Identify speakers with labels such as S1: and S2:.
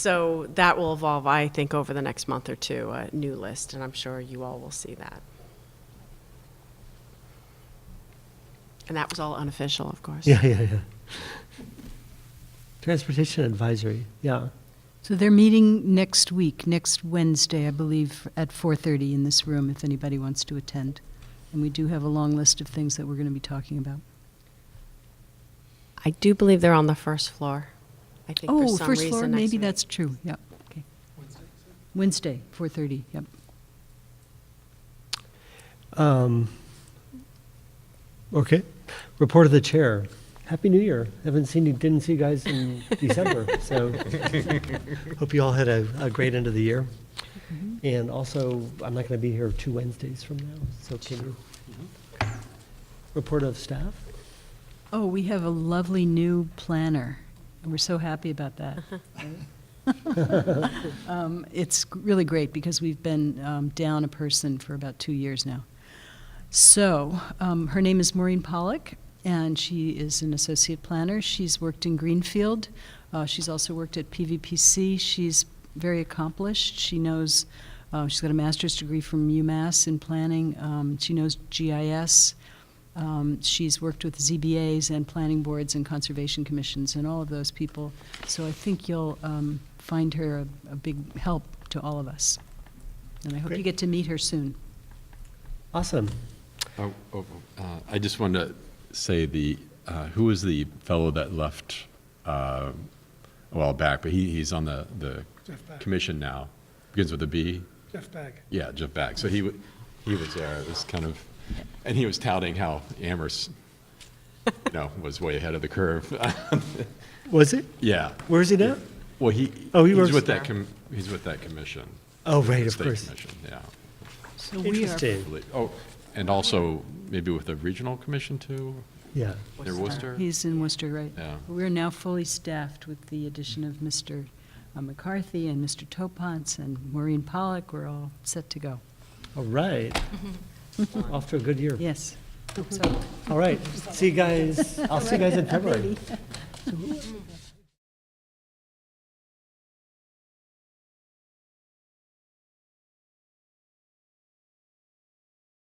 S1: So that will evolve, I think, over the next month or two, a new list, and I'm sure you all will see that. And that was all unofficial, of course.
S2: Yeah, yeah, yeah. Transportation advisory, yeah.
S3: So they're meeting next week, next Wednesday, I believe, at 4:30 in this room, if anybody wants to attend. And we do have a long list of things that we're going to be talking about.
S1: I do believe they're on the first floor. I think for
S3: Oh,
S1: some
S3: first
S1: reason
S3: floor,
S1: next
S3: maybe
S1: week.
S3: that's true, yep, okay. Wednesday, 4:30, yep.
S2: Um, Okay. Report of the chair. Happy New Year. Haven't seen you, didn't see you guys in December, so hope you all had a, a great end of the year.
S3: Mm-hmm.
S2: And also, I'm not going to be here two Wednesdays from now, so can you?
S3: Mm-hmm.
S2: Report of staff?
S3: Oh, we have a lovely new planner. and We're so happy about that. Um, It's really great because we've been um, down a person for about two years now. So, um, her name is Maureen Pollock, and she is an associate planner. She's worked in Greenfield. Uh, She's also worked at PVPC. She's very accomplished. She knows, uh, she's got a master's degree from UMass in planning. Um, She knows GIS. Um, She's worked with ZBAs and planning boards and conservation commissions and all of those people. So I think you'll um, find her a- a big help to all of us. And I hope you
S2: Great.
S3: get to meet her soon.
S2: Awesome.
S4: Oh, oh, oh, uh, I just wanted to say the, uh, who was the fellow that left uh, a while back, but he, he's on the, the
S5: Jeff Beck.
S4: commission now, begins with a B?
S5: Jeff Bag.
S4: Yeah, Jeff Back. So he, wa- he was there, it was kind of, and he was touting how Amherst, you know, was way ahead of the curve.
S2: Was it?
S4: Yeah,
S2: Where is he now?
S4: well, he,
S2: Oh, he
S4: he's
S2: works
S4: with that, com- he's with that commission.
S2: Oh, right,
S4: the
S2: of
S4: state
S2: course.
S4: commission, Yeah.
S3: So we are
S4: I
S2: Interesting,
S4: believe- Oh, and also maybe with the regional commission too,
S2: yeah.
S4: near Worcester?
S3: He's in Worcester, right?
S4: Yeah.
S3: We're now fully staffed with the addition of Mr. McCarthy and Mr. Topance and Maureen Pollock. We're all set to go.
S2: All right. Off to a good year.
S3: Yes.
S2: All right, see you guys, I'll see you guys in February.